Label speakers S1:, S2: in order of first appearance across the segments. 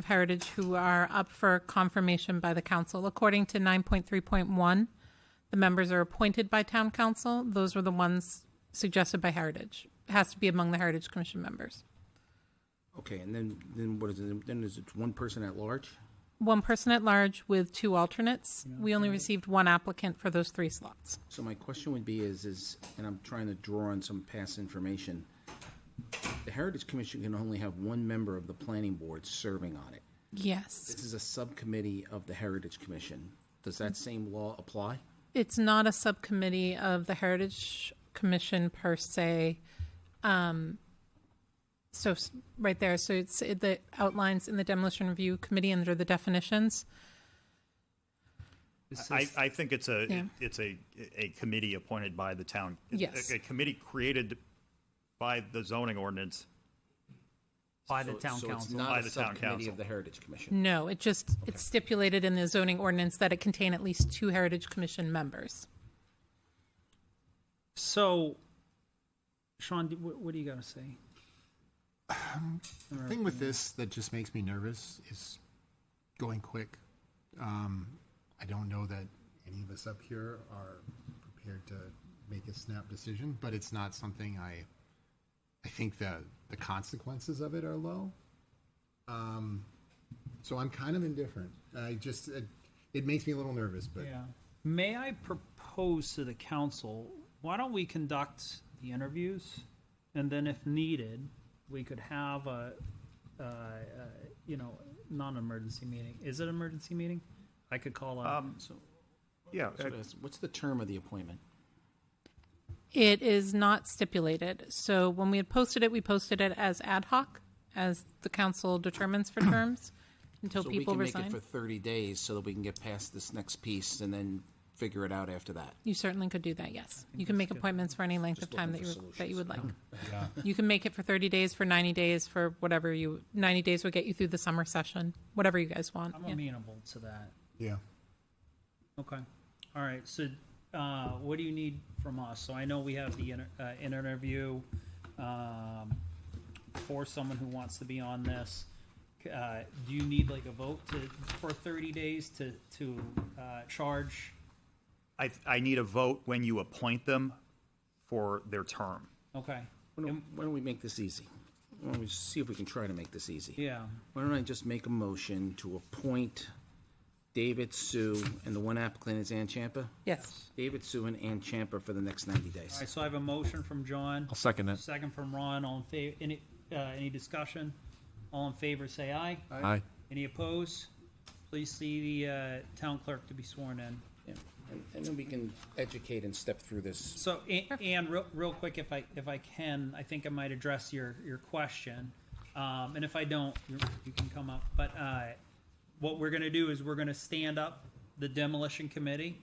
S1: of Heritage who are up for confirmation by the council. According to 9.3.1, the members are appointed by town council. Those were the ones suggested by Heritage. It has to be among the Heritage Commission members.
S2: Okay, and then, then what is it, then is it one person at large?
S1: One person at large with two alternates. We only received one applicant for those three slots.
S2: So my question would be is, is, and I'm trying to draw on some past information, the Heritage Commission can only have one member of the planning board serving on it.
S1: Yes.
S2: This is a subcommittee of the Heritage Commission. Does that same law apply?
S1: It's not a subcommittee of the Heritage Commission per se. Um, So, s- right there, so it's, it the outlines in the demolition review committee under the definitions.
S3: I, I think it's
S1: Yeah.
S3: a, it's a, a committee appointed by the town.
S1: Yes.
S3: A- A committee created by the zoning ordinance.
S4: by the town
S2: So it's
S4: council.
S2: not
S3: By
S2: a
S3: the town
S2: subcommittee
S3: council.
S2: of the Heritage Commission.
S1: No, it just, it's stipulated in the zoning ordinance that it contain at least two Heritage Commission members.
S4: So, Sean, do- what, what are you gonna say?
S5: The thing with this that just makes me nervous is going quick. Um, I don't know that any of us up here are prepared to make a snap decision, but it's not something I, I think the, the consequences of it are low. Um, so I'm kind of indifferent. I just, it, it makes me a little nervous, but
S4: Yeah. May I propose to the council, why don't we conduct the interviews? And then if needed, we could have a, uh, uh, you know, non-emergency meeting. Is it an emergency meeting? I could call a,
S3: Um, Yeah,
S2: So that's- What's the term of the appointment?
S1: It is not stipulated. So when we had posted it, we posted it as ad hoc, as the council determines for terms until
S2: So we
S1: people
S2: can make
S1: resign.
S2: it for 30 days so that we can get past this next piece and then figure it out after that.
S1: You certainly could do that, yes. You can make appointments for any length of time that
S2: looking
S1: you,
S2: for
S1: that you
S2: solutions,
S1: would like. You can make it for 30 days, for 90 days, for whatever you, 90 days would get you through the summer session, whatever you guys want.
S4: I'm
S1: yeah.
S4: amenable to that.
S5: yeah.
S4: Okay. All right. So, uh, what do you need from us? So I know we have the inter- uh, an interview, um, for someone who wants to be on this. Uh, do you need like a vote to, for thirty days to, to, uh, charge?
S3: I, I need a vote when you appoint them for their term.
S4: Okay.
S2: Why don't, why don't we make this easy? Why don't we see if we can try to make this easy?
S4: Yeah.
S2: Why don't I just make a motion to appoint David, Sue, and the one applicant is Ann Champa?
S1: Yes.
S2: David, Sue, and Ann Champa for the next 90
S4: All
S2: days.
S4: right. So I have a motion from John,
S6: I'll second it.
S4: second from Ron. All in favor, any, uh, any discussion? All in favor, say aye.
S6: Aye.
S4: Any opposed? Please see the, uh, town clerk to be sworn in.
S2: Yeah. And- And then we can educate and step through this.
S4: So, A- Ann, real, real quick, if I, if I can, I think I might address your, your question. Um, and if I don't, you you can come up. But, uh, what we're gonna do is we're gonna stand up the demolition committee.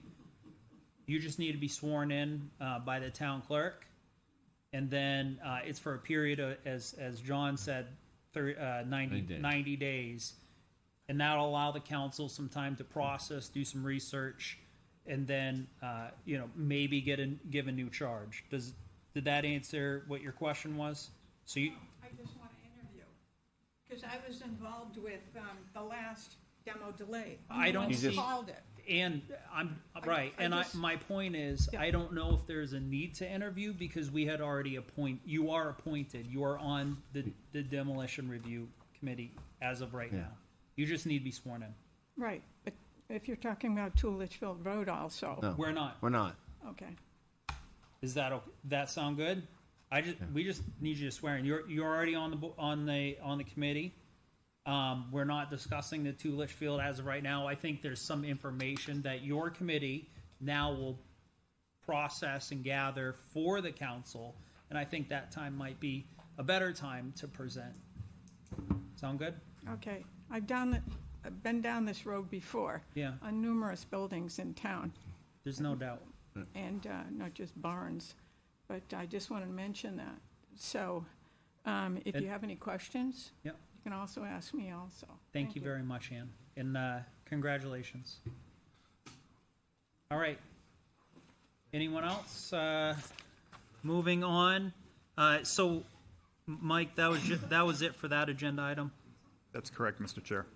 S4: You just need to be sworn in, uh, by the town clerk. And then, uh, it's for a period of, as, as John said, thir uh, 90
S6: days.
S4: 90 days. And that'll allow the council some time to process, do some research, and then, uh, you know, maybe get a, give a new charge. Does, did that answer what your question was? So you,
S7: I just want to interview, because I was involved with um, the last demo delay.
S4: I don't
S7: You
S4: see-
S7: Called it.
S4: and I'm, right,
S7: I
S4: and I,
S7: just-
S4: my point is, I don't know if there's a need to interview because we had already appoint, you are appointed, you are on the, the demolition review committee as of right now. You just need to be sworn in.
S7: Right, but if you're talking about Two Litchfield Road also,
S6: No.
S4: We're not.
S6: We're not.
S7: okay.
S4: Is that okay? That sound good? I just we just need you to swear in. You're you're already on the bo- on the on the committee. Um, we're not discussing the two Litchfield as of right now. I think there's some information that your committee now will process and gather for the council, and I think that time might be a better time to present. Sound good?
S7: Okay, I've done, it- I've been down this road before.
S4: Yeah.
S7: On numerous buildings in town,
S4: There's no doubt.
S7: and uh, not just barns, but I just want to mention that. So um, if you have any questions,
S4: Yep.
S7: you can also ask me also.
S4: Thank you very much, Ann, and uh, congratulations. All right. Anyone else? Uh, Moving on, Uh, so, Mike, that was, ju- that was it for that agenda item?
S3: That's correct, Mr. Chair.